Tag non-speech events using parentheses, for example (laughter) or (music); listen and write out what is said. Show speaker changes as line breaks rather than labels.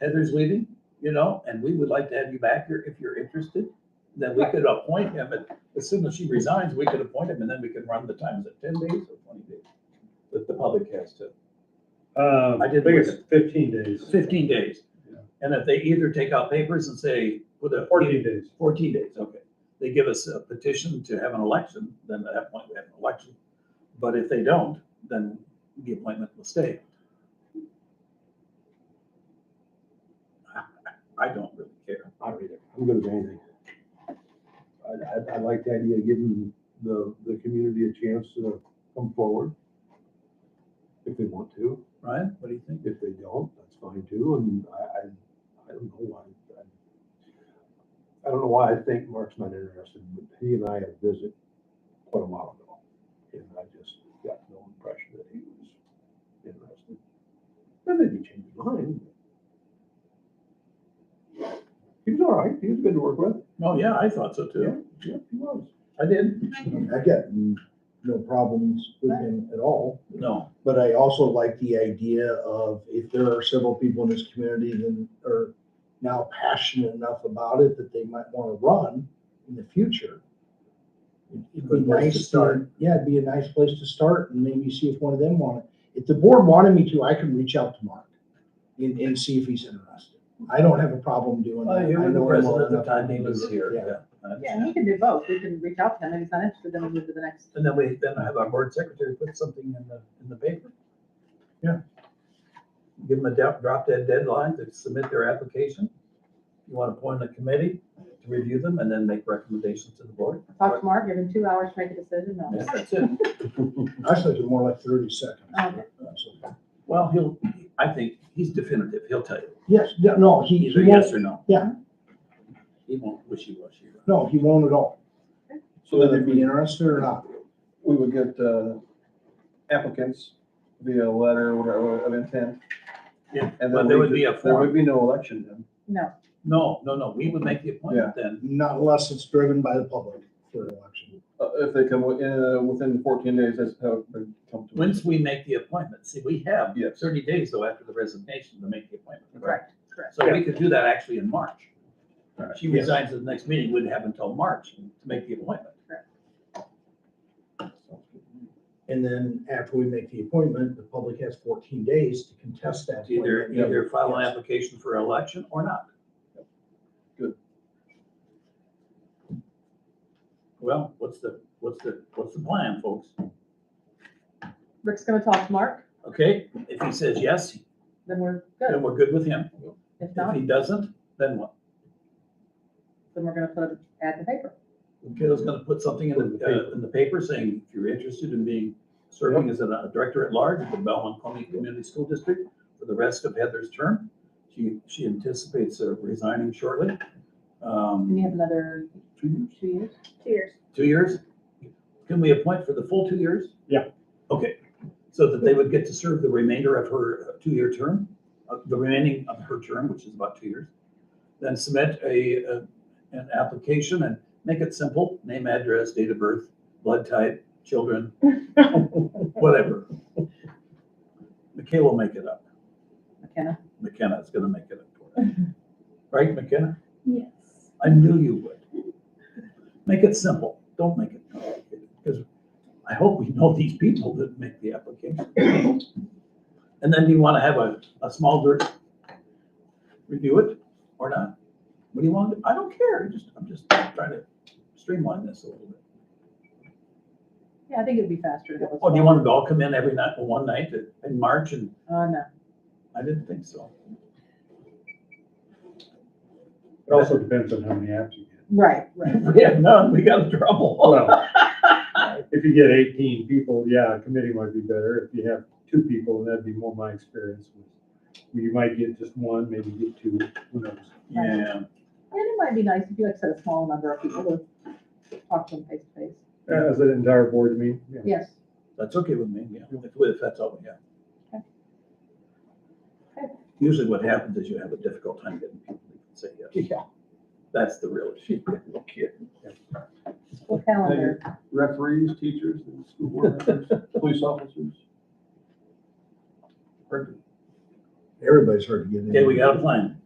Heather's leaving, you know, and we would like to have you back here if you're interested. Then we could appoint him, and as soon as she resigns, we could appoint him, and then we can run the times at ten days or twenty days. But the public has to,
Uh,
I
I
did
think it's fifteen days,
fifteen days.
Yeah.
And if they either take out papers and say, put a.
fourteen days.
14 days, okay. They give us a petition to have an election, then at that point we have an election. But if they don't, then the appointment will stay. I- I don't really care.
I read it. I'm good with anything. I, I, I like the idea of giving the, the community a chance to come forward. If they want to,
Ryan, what do you think?
if they don't, that's fine too, and I, I, I don't know why. I- I don't know why I think Mark's not interested, but he and I had a visit quite a while ago. And I just got no impression that he was interested. And then he changed his mind. He was all right, he was good to work with.
Oh, yeah, I thought so too.
Yeah, he was.
I did.
I got no problems with him at all,
No,
but I also like the idea of if there are several people in this community that are now passionate enough about it that they might want to run in the future. It'd be
Good place to
nice to
start.
start, yeah, it'd be a nice place to start and maybe see if one of them want it. If the board wanted me to, I could reach out to Mark and, and see if he's interested. I don't have a problem doing that.
I hear
I
Oh, the
know him well
president at the
enough.
time he was here. yeah, I
Yeah, and
understand.
he can do both. We can reach out to him. If he's not interested, then we'll move to the next.
And then we, then I have our board secretary put something in the, in the paper. Yeah. Give them a drop, drop dead deadline to submit their application. You want to appoint a committee to review them and then make recommendations to the board.
Talk to Mark, give him two hours to make a decision. No.
Yeah, that's it.
I said it's more like thirty seconds. Uh,
Okay.
So-
Well, he'll, I think he's definitive. He'll tell you.
Yes, yeah, no, he,
Either
he won't,
yes or no.
Yeah.
He won't wishy-washy.
no, he won't at all.
So
Whether they
then we,
be interested or not.
we would get uh, applicants via letter, whatever, of intent.
Yeah,
And
But
then
there
we
would
could-
be a
there
form.
would be no election then.
No,
No, no, no. We would make the appointment then.
Not unless it's driven by the public for an election.
Uh, If they come wi- uh, within fourteen days, that's how it would come to.
Once we make the appointment, see, we have
Yes.
thirty days though after the resignation to make the appointment.
correct, correct.
So we could do that actually in March.
Alright.
She resigns at the next meeting, wouldn't have until March to make the appointment.
And then after we make the appointment, the public has fourteen days to contest that.
It's Either,
appointment.
either file an
Yes.
application for election or not.
Good.
Well, what's the, what's the, what's the plan, folks?
Rick's gonna talk to Mark,
Okay, if he says yes,
then we're good.
then we're good with him.
If
If
not,
he doesn't, then what?
then we're gonna put it at the paper.
Kiddo's gonna put something in the, uh, in the paper saying, if you're interested in being, serving as a director at large of the Belmont County Community School District for the rest of Heather's term, she, she anticipates uh, resigning shortly.
And you
Um,
have another two years? Two years.
two years? Can we appoint for the full two years?
Yeah.
Okay, so that they would get to serve the remainder of her uh, two-year term, uh, the remaining of her term, which is about two years. Then submit a, uh, an application and make it simple, name, address, date of birth, blood type, children, (laughs) whatever. Michaela will make it up.
McKenna.
McKenna's gonna make it up for us. Right, McKenna?
Yes.
I knew you would. Make it simple. Don't make it complicated, because I hope we know these people that make the application. And then you want to have a, a small group review it or not? What do you want? I don't care. Just, I'm just trying to streamline this a little bit.
Yeah, I think it'd be faster. to have a
Oh, do you
small-
want to all come in every night, one night in March? And
Uh, no.
I didn't think so. (laughs)
It also depends on how many apps you get.
Right, right.
If we had none, we got in trouble.
Well, If you get eighteen people, yeah, a committee might be better. If you have two people, that'd be more my experience. You might get just one, maybe get two, who knows?
Yeah.
And it might be nice if you like set a small number of people to talk to them face to face.
As an entire board meeting, yeah.
Yes.
That's okay with me, yeah, if, if that's all we have.
Okay.
Usually what happens is you have a difficult time getting people to say yes. Yeah. That's the real issue.
Well, calendar.
Referees, teachers, and school board members, police officers.
Pardon?
everybody's hard to get in.
Okay, we got a plan.